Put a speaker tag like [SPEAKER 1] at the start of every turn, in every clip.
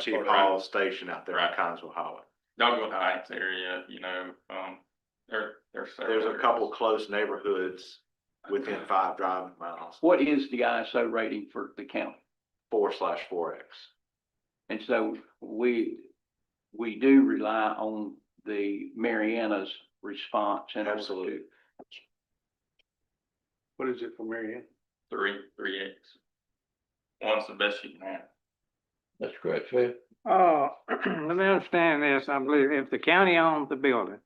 [SPEAKER 1] Chief
[SPEAKER 2] Fort
[SPEAKER 1] Hall
[SPEAKER 2] Reynolds.
[SPEAKER 1] Station out there on
[SPEAKER 2] Right.
[SPEAKER 1] Consell Highway.
[SPEAKER 2] Dogwood Heights area, you know, um, there, there's.
[SPEAKER 1] There's a couple close neighborhoods within
[SPEAKER 2] Okay.
[SPEAKER 1] five driving miles,
[SPEAKER 3] What is the ISO rating for the county?
[SPEAKER 1] four slash four X.
[SPEAKER 3] And so we, we do rely on the Mariana's response in order
[SPEAKER 1] Absolutely.
[SPEAKER 3] to.
[SPEAKER 4] What is it for Marianne?
[SPEAKER 2] Three, three X. One's the best you can have.
[SPEAKER 5] That's correct, Phil.
[SPEAKER 4] Uh, let me understand this, I believe if the county owns the building,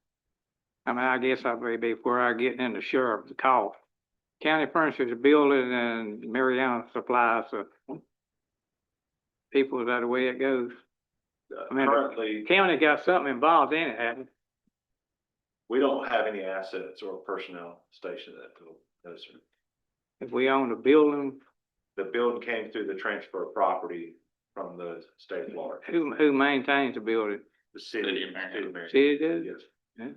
[SPEAKER 4] I mean, I guess I may be before I get into sheriff's call. County furnishes the building and Mariana supplies the people, is that the way it goes? I mean, the-
[SPEAKER 1] Uh, Currently,
[SPEAKER 4] County got something involved in it, hasn't it?
[SPEAKER 1] we don't have any assets or personnel stationed at the, no, sir.
[SPEAKER 4] if we own the building,
[SPEAKER 1] The building came through the transfer of property from the state of Florida,
[SPEAKER 4] who, who maintains the building?
[SPEAKER 1] the city.
[SPEAKER 2] City of Marion.
[SPEAKER 1] city of Marion.
[SPEAKER 4] City does?
[SPEAKER 1] Yes.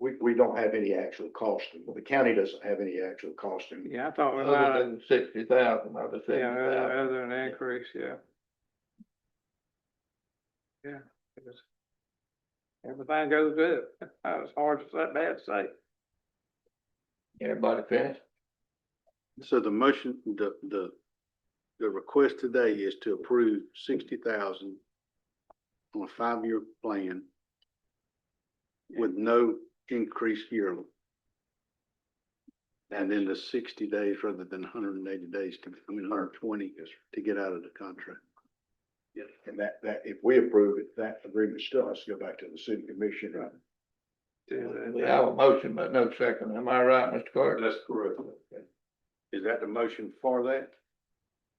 [SPEAKER 6] We, we don't have any actual costing, the county doesn't have any actual costing.
[SPEAKER 4] Yeah, I thought we
[SPEAKER 5] Other
[SPEAKER 4] might,
[SPEAKER 5] than sixty thousand, I was
[SPEAKER 4] yeah,
[SPEAKER 5] seventy
[SPEAKER 4] other,
[SPEAKER 5] thousand.
[SPEAKER 4] other than increase, yeah. Yeah. it was- Everything goes up, that was hard to say, bad to say.
[SPEAKER 5] Everybody finished?
[SPEAKER 7] So the motion, the, the, the request today is to approve sixty thousand on a five-year plan with no increase yearly. And then the sixty days rather than hundred and eighty days to, I mean, hundred and twenty to get out of the contract.
[SPEAKER 6] And that, that, if we approve it, that agreement still has to go back to the city commission, right?
[SPEAKER 5] We have a motion, but no second. Am I right, Mr. Carter?
[SPEAKER 1] That's correct.
[SPEAKER 7] Is that the motion for that?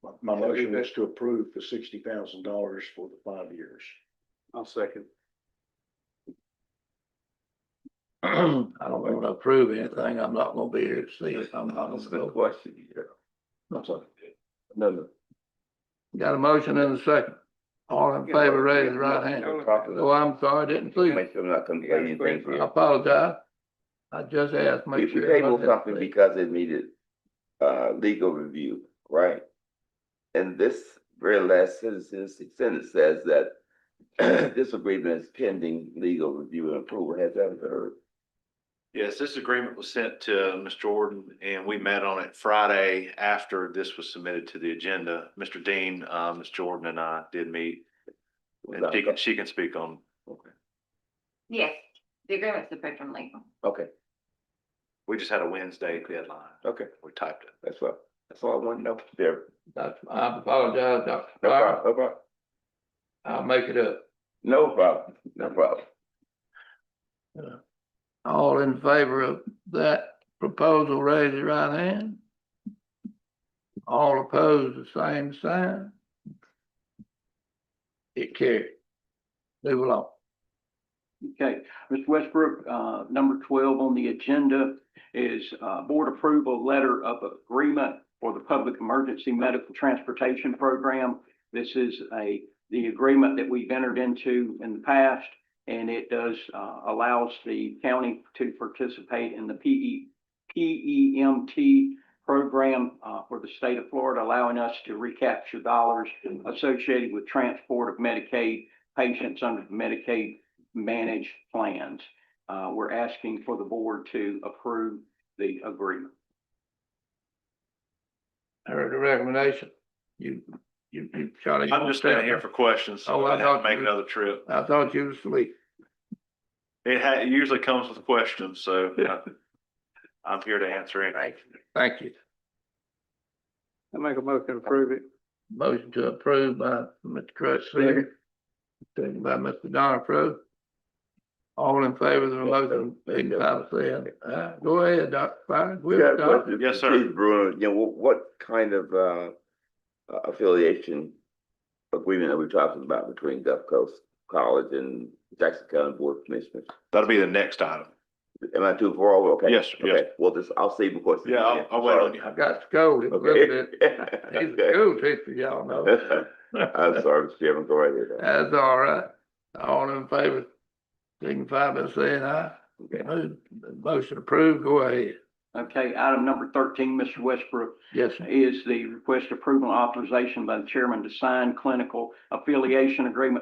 [SPEAKER 6] My- My motion is to approve the sixty thousand dollars for the five years.
[SPEAKER 7] I'll second.
[SPEAKER 5] I don't wanna approve anything. I'm not gonna be here to see it. I'm not gonna go question here. No, no. Got a motion and a second. All in favor, raise your right hand. Oh, I'm sorry, I didn't see it.
[SPEAKER 8] I'm not gonna say anything.
[SPEAKER 5] I apologize. I just asked,
[SPEAKER 8] We
[SPEAKER 5] make
[SPEAKER 8] we
[SPEAKER 5] sure.
[SPEAKER 8] tabled
[SPEAKER 5] everybody-
[SPEAKER 8] something because it needed, uh, legal review, right? And this very last sentence, sentence says that this agreement is pending legal review and approval. Has that been heard?
[SPEAKER 1] Yes, this agreement was sent to Ms. Jordan and we met on it Friday after this was submitted to the agenda. Mr. Dean, uh, Ms. Jordan and I did meet and she can, she can speak on
[SPEAKER 8] Okay.
[SPEAKER 9] Yes, the agreement's approved from legal.
[SPEAKER 8] Okay,
[SPEAKER 1] We just had a Wednesday deadline.
[SPEAKER 8] okay,
[SPEAKER 1] We typed it.
[SPEAKER 8] that's what, that's all I want to know. There,
[SPEAKER 5] That's, I apologize, Dr.
[SPEAKER 8] no
[SPEAKER 5] Carter.
[SPEAKER 8] problem, no problem,
[SPEAKER 5] I'll make it up.
[SPEAKER 8] no problem, no problem.
[SPEAKER 5] All in favor of that proposal, raise your right hand. All opposed, the same sign. It carried. Move along.
[SPEAKER 3] Okay, Mr. Westbrook, uh, number twelve on the agenda is, uh, board approval letter of agreement for the Public Emergency Medical Transportation Program. This is a, the agreement that we've entered into in the past, and it does, uh, allows the county to participate in the E, PE, E PEMT program, uh, for the state of Florida, allowing us to recapture dollars associated with transport of Medicaid patients under the Medicaid manage plans. Uh, we're asking for the board to approve the agreement.
[SPEAKER 5] I Heard the recommendation. You, you, you, Charlie.
[SPEAKER 1] I'm just standing here for questions. so
[SPEAKER 5] Oh, I
[SPEAKER 1] I'd have to
[SPEAKER 5] thought
[SPEAKER 1] Make
[SPEAKER 5] you-
[SPEAKER 1] another trip.
[SPEAKER 5] I thought you was asleep.
[SPEAKER 1] It ha- it usually comes with questions, so uh, I'm here to answer any.
[SPEAKER 5] Thank you. Thank you.
[SPEAKER 4] I make a motion to approve it.
[SPEAKER 5] Motion to approve by Mr. Crutchfield. Second by Mr. Donapro. All in favor of the motion, signify by saying aye. Go ahead, Dr. Fine.
[SPEAKER 8] Yeah, what-
[SPEAKER 1] Yes, sir.
[SPEAKER 8] Chief Bruno, you know, wh- what kind of uh, uh, affiliation agreement are we talking about between Gulf Coast College and Jackson County Board of Commissioners?
[SPEAKER 1] That'll be the next item.
[SPEAKER 8] Am I too far over? Okay.
[SPEAKER 1] Yes, sir, yes.
[SPEAKER 8] okay. Well, this, I'll save before.
[SPEAKER 1] Yeah, I'll- I'll wait on you.
[SPEAKER 5] I got scolded a little
[SPEAKER 8] Okay.
[SPEAKER 5] bit. He's a school teacher, y'all know.
[SPEAKER 8] I'm sorry, Mr. Chairman, go right ahead.
[SPEAKER 5] That's all right. All in favor, signify by saying aye. Move- Motion approved, go ahead.
[SPEAKER 3] Okay, item number thirteen, Mr. Westbrook,
[SPEAKER 5] Yes, sir.
[SPEAKER 3] is the request approval authorization by the chairman to sign clinical affiliation agreement